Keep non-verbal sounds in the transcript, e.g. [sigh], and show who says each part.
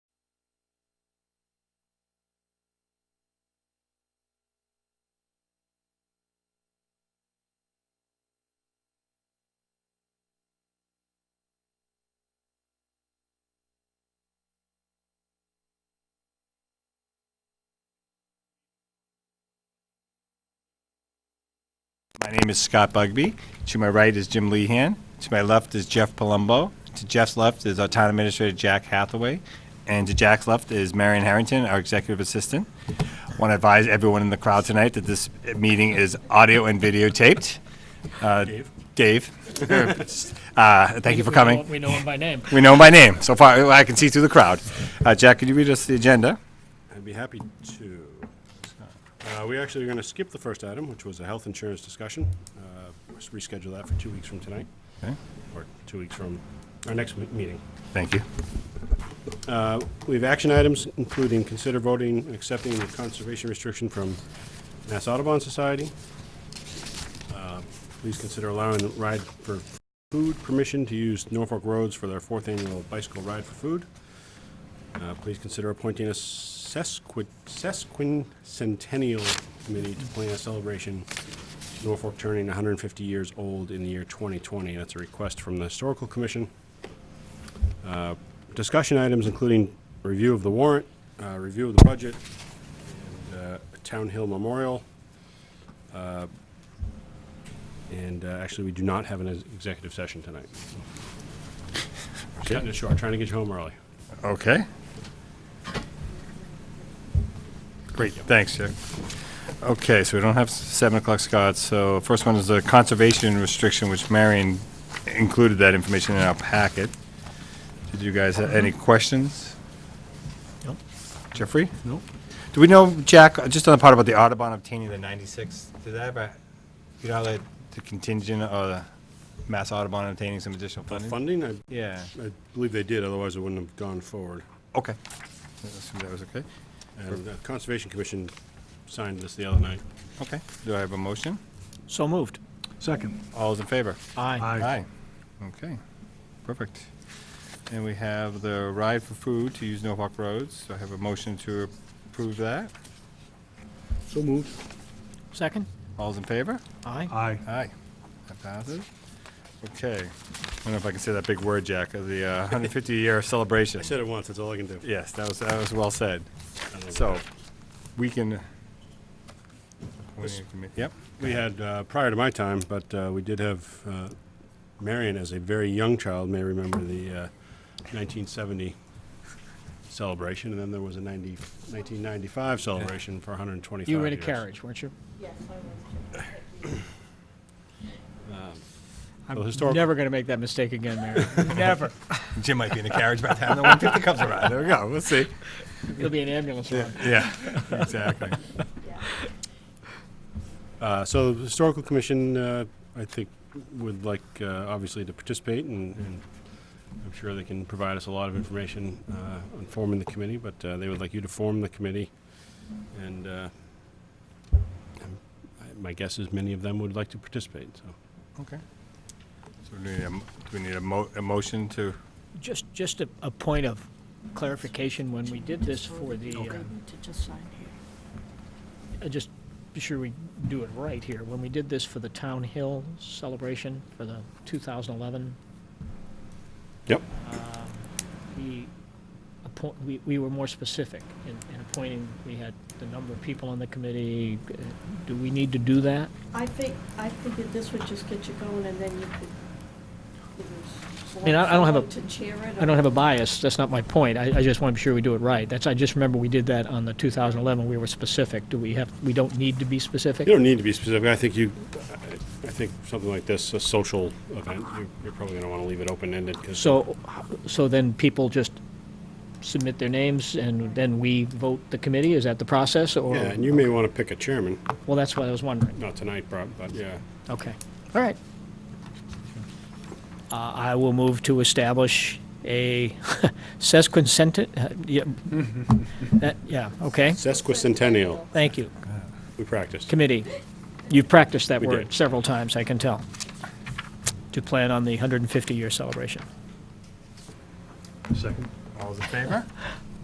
Speaker 1: My name is Scott Bugby. To my right is Jim Lehan. To my left is Jeff Palumbo. To Jeff's left is our town administrator, Jack Hathaway. And to Jack's left is Marion Harrington, our executive assistant. Want to advise everyone in the crowd tonight that this meeting is audio and videotaped. Uh, Dave. [laughs] Uh, Thank you for coming.
Speaker 2: We know him by name.
Speaker 1: We know him by name. So far, I can see through the crowd. Uh, Jack, could you read us the agenda?
Speaker 3: I'd be happy to. Uh, We actually are going to skip the first item, which was a health insurance discussion. Uh, Let's reschedule that for two weeks from tonight,
Speaker 1: Okay.
Speaker 3: or two weeks from our next me- meeting.
Speaker 1: Thank you.
Speaker 3: We have action items, including consider voting and accepting the conservation restriction from Mass Audubon Society. Uh, Please consider allowing ride for food permission to use Norfolk roads for their fourth annual bicycle ride for food. Uh, Please consider appointing a sesqui- sesquicentennial committee to plan a celebration of Norfolk turning 150 years old in the year 2020. That's a request from the Historical Commission discussion items, including review of the warrant, uh, review of the budget, and uh, Town Hill Memorial. Uh, And uh, actually, we do not have an ex- executive session tonight. We're Cutting it short, trying to get you home early.
Speaker 1: Okay. Great, thanks, Jack. Okay, so we don't have s- 7 o'clock, Scott, so first one is the conservation restriction, which Marion included that information in our packet. Did you guys have any questions?
Speaker 2: Nope.
Speaker 1: Jeffrey?
Speaker 2: Nope.
Speaker 1: Do we know, Jack, uh, just on the part about the Audubon obtaining the 96, did that ever, you know, like, the contingent or the Mass Audubon obtaining some additional funding?
Speaker 3: Funding, I
Speaker 1: Yeah,
Speaker 3: I believe they did, otherwise it wouldn't have gone forward.
Speaker 1: okay. I assume That was okay.
Speaker 3: And the Conservation Commission signed this the other night.
Speaker 1: Okay, do I have a motion?
Speaker 2: So moved.
Speaker 4: Second.
Speaker 1: All those in favor?
Speaker 2: Aye.
Speaker 1: Aye. Okay, perfect. And we have the ride for food to use Norfolk roads, so I have a motion to approve that.
Speaker 4: So moved.
Speaker 2: Second?
Speaker 1: All those in favor?
Speaker 2: Aye.
Speaker 4: Aye.
Speaker 1: Aye. That passes. Okay, I don't know if I can say that big word, Jack, of the [laughs] uh, 150-year celebration.
Speaker 3: I said it once, that's all I can do.
Speaker 1: Yes, that was, that was well said.
Speaker 3: I don't know.
Speaker 1: So, we can... Yep,
Speaker 3: We had, uh, prior to my time, but uh, we did have uh, Marion as a very young child may remember the uh, 1970 celebration, and then there was a 90, 1995 celebration for 125
Speaker 2: You were in a
Speaker 3: years.
Speaker 2: carriage, weren't you?
Speaker 5: Yes, I was.
Speaker 3: Well,
Speaker 2: I'm
Speaker 3: historical-
Speaker 2: never going to make that mistake again, [laughs] Mary. Never.
Speaker 1: Jim might be in a carriage by the time the 150 comes around. There we go, we'll see.
Speaker 2: It'll be an ambulance run.
Speaker 1: Yeah, exactly.
Speaker 3: Uh, So the Historical Commission, uh, I think, would like, uh, obviously, to participate, and and I'm sure they can provide us a lot of information uh, on forming the committee, but uh, they would like you to form the committee, and uh, I'm- I- my guess is many of them would like to participate, so.
Speaker 1: Okay. So do we need a, m- do we need a mo, a motion to,
Speaker 2: Just, just a, a point of clarification, when we did this for the, uh,
Speaker 5: To just sign here.
Speaker 2: uh, just be sure we do it right here. When we did this for the Town Hill celebration for the 2011
Speaker 3: Yep.
Speaker 2: uh, we, appoint- we, we were more specific in, in appointing, we had the number of people on the committee. Uh, Do we need to do that?
Speaker 5: I think, I figured this would just get you going and then you could. either select
Speaker 2: mean, I- I don't have a-
Speaker 5: someone To chair it.
Speaker 2: I don't have a bias, that's not my point, I, I just want to be sure we do it right. That's, I just remember we did that on the 2011, we were specific. Do we have, we don't need to be specific?
Speaker 3: You don't need to be specific, I think you, I- I think something like this, a social event, you- you're probably going to want to leave it open-ended, because.
Speaker 2: So, so then people just submit their names and then we vote the committee, is that the process, or?
Speaker 3: Yeah, and you may want to pick a chairman,
Speaker 2: Well, that's what I was wondering,
Speaker 3: not tonight, prob- but, yeah.
Speaker 2: okay, all right. Uh, I will move to establish a [laughs] sesquicentennial,
Speaker 3: [laughs]
Speaker 2: yeah, that- yeah, okay,
Speaker 3: Sesquicentennial,
Speaker 2: thank you.
Speaker 3: we practiced.
Speaker 2: Committee, you've practiced that
Speaker 3: We
Speaker 2: word
Speaker 3: did.
Speaker 2: several times, I can tell, to plan on the 150-year celebration.
Speaker 4: Second.
Speaker 1: all those in favor?